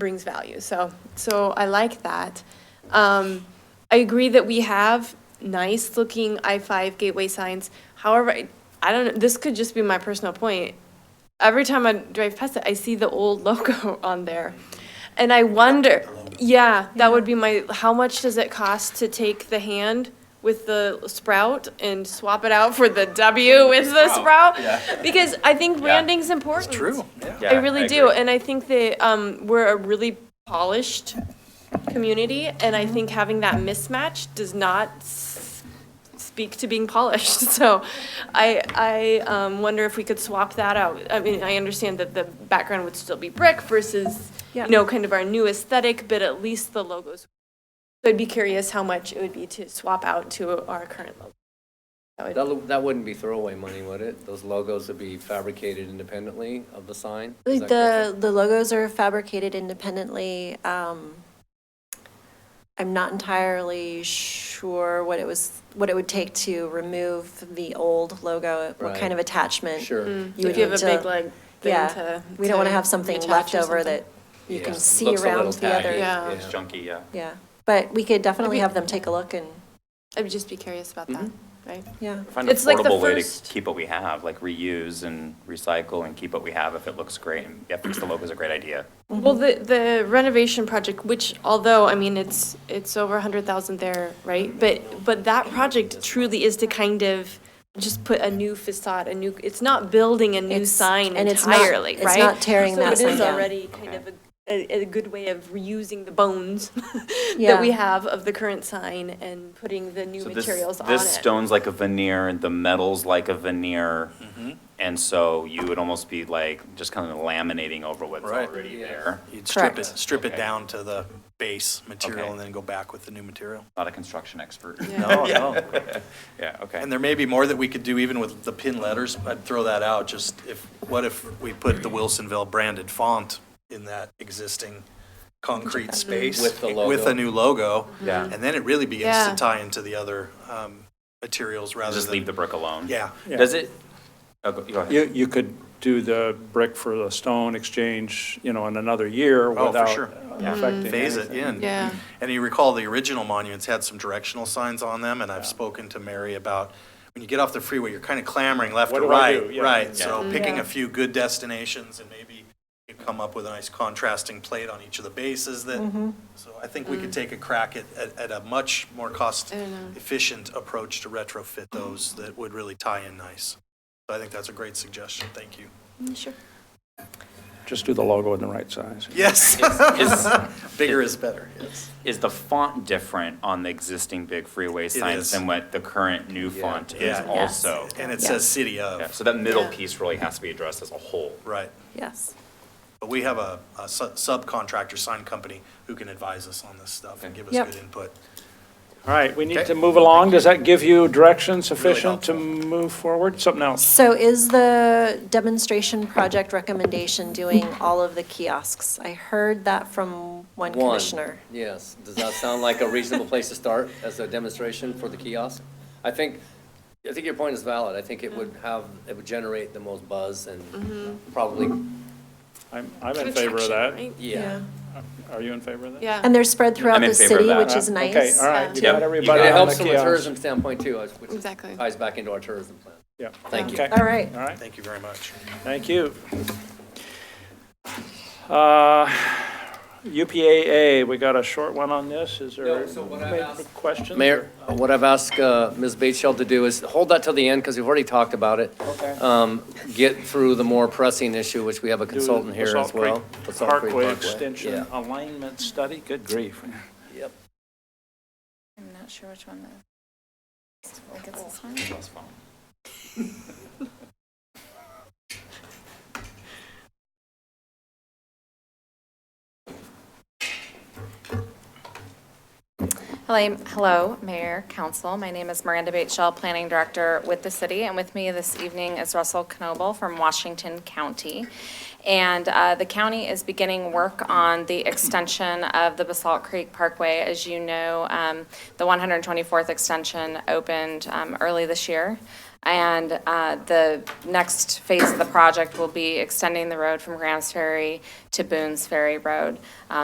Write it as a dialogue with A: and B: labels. A: brings value. So, so I like that. Um, I agree that we have nice looking I-5 gateway signs. However, I- I don't, know. this could just be my personal point. Every time I drive past it, I see the old logo on there. And I wonder, yeah, that would be my, how much does it cost to take the hand with the sprout and swap it out for the W with the sprout? Because I think branding's important.
B: True.
A: I really do, and I think that um, we're a really polished community, and I think having that mismatch does not s- speak to being polished. So, I I um, wonder if we could swap that out. I mean, I understand that the background would still be brick versus
C: Yeah.
A: you know kind of our new aesthetic, but at least the logos. So I'd be curious how much it would be to swap out to our current logo. That would-
D: That, that wouldn't be throwaway money, would it? Those logos would be fabricated independently of the sign? Is that correct?
C: The, the logos are fabricated independently. Um, I'm not entirely sure what it was, what it would take to remove the old logo, what kind
D: Right.
C: of attachment.
D: Sure.
C: Mm. You
A: if
C: would
A: you have
C: need
A: a
C: to-
A: big like thing
C: Yeah,
A: to.
C: we don't want to have something
A: attach or
C: left over
A: something.
C: that you
D: Yeah.
C: can see
D: Looks a
C: around
D: little
C: the other.
D: tacky.
A: Yeah.
B: It's chunky, yeah.
C: Yeah, but we could definitely have them take a look and,
A: I'd just be curious about that,
C: Mm-hmm.
A: right?
C: yeah.
B: Find an
A: It's like the
B: affordable way to
A: first-
B: keep what we have, like reuse and recycle and keep what we have if it looks great. And yeah, fix the logo's a great idea.
C: Mm-hmm.
A: Well, the, the renovation project, which although, I mean, it's, it's over a hundred thousand there, right? But, but that project truly is to kind of just put a new facade, a new, it's not building a new
C: It's-
A: sign
C: and it's not-
A: entirely,
C: it's
A: right?
C: not tearing that
A: So it
C: sign
A: is
C: down.
A: already kind of a, a, a good way of reusing the bones that
C: Yeah.
A: we have of the current sign and putting the new
B: So this-
A: materials on it.
B: This stone's like a veneer, and the metal's like a veneer.
E: Mm-hmm.
B: And so you would almost be like, just kind of laminating over what's
E: Right.
B: already there.
E: You'd strip it,
C: Correct.
E: strip it
B: Okay.
E: down to the base material
B: Okay.
E: and then go back with the new material.
B: Not a construction expert.
E: No, no.
B: Yeah, okay.
E: And there may be more that we could do even with the pin letters. I'd throw that out, just if, what if we put the Wilsonville branded font in that existing concrete space?
D: With the
E: With
D: logo.
E: a new logo.
B: Yeah.
E: And then it really begins
A: Yeah.
E: to tie into the other um, materials rather than.
B: Just leave the brick alone.
E: Yeah.
B: Does it, oh, go go ahead.
F: You, you could do the brick for the stone exchange, you know, in another year
E: for
F: without
E: sure.
B: Yeah.
F: affecting
E: phase it
F: anything.
E: in.
A: Mm-hmm. Yeah.
E: And you recall the original monuments had some directional signs on them, and I've spoken to Mary about, when you get off the freeway, you're kind of clamoring left
F: What
E: or
F: do I do?
E: right,
F: Yeah.
E: right? So
A: Yeah.
E: picking
A: Mm-hmm. Yeah.
E: a few good destinations and maybe you come up with a nice contrasting plate on each of the bases
A: Mm-hmm.
E: that, so I think we
A: Mm.
E: could take a crack at, at, at a much more cost efficient approach to retrofit those that would really tie in nice. So I think that's a great suggestion, thank you.
A: Sure.
F: Just do the logo in the right size.
E: Yes,
B: Is-
E: bigger is better, yes.
B: Is the font different on the existing big freeway
E: is.
B: signs than what the current new font is
E: Yeah.
C: Yes.
B: also?
E: And it says city
B: Yeah,
E: of,
B: So that middle
A: Yeah.
B: piece really has to be addressed as a whole.
E: right.
C: Yes.
E: But we have a, a su- subcontractor sign company who can advise us on this stuff and give us
C: Yep.
E: good input.
F: All right, we need
E: Okay.
F: to move along. Does that give you direction sufficient to move forward? Something else?
C: So is the demonstration project recommendation doing all of the kiosks? I heard that from
D: One,
C: one commissioner.
D: Yes. Does that sound like a reasonable place to start as a demonstration for the kiosk? I think, I think your point is valid. I think it would have, it would generate the most buzz and
C: Mm-hmm.
D: probably,
F: I'm, I'm in favor of that.
D: yeah.
F: Are you in favor of that?
A: Yeah.
C: And they're spread throughout
B: I'm in
C: the
B: favor of
C: city,
B: that.
C: which is
F: Uh,
C: nice.
F: Okay, all right, you got
B: Yeah.
D: And
F: everybody
D: it
F: on the
D: helps from a
F: kiosk.
D: tourism standpoint too, which
A: Exactly.
D: ties back into our tourism plan.
F: Yeah.
D: Thank you.
F: Okay.
C: All right.
F: All right.
E: Thank you very much.
F: Thank you. Uh, UPAA, we got a short one on this. Is there
D: No, so what I've asked-
F: questions?
D: Mayor, what I've asked uh, Ms. Batesshell to do is hold that till the end, because we've already talked about it.
F: Okay.
D: Um, Get through the more pressing issue, which we have a
F: Do the
D: consultant here
F: Basalt
D: as well.
F: Creek
D: Basalt Creek
F: Parkway
D: Parkway,
F: Extension
D: yeah.
F: Alignment Study, good grief.
D: Yep.
G: I'm not sure which one that. I think it's this one. Hello, hello, Mayor, Council. My name is Miranda Bateshaw, Planning Director with the city, and with me this evening is Russell Knoble from Washington County. And uh, the county is beginning work on the extension of the Basalt Creek Parkway. As you know, um, the 124th extension opened um, early this year. And uh, the next phase of the project will be extending the road from Grants Ferry to Boone's Ferry Road. Um,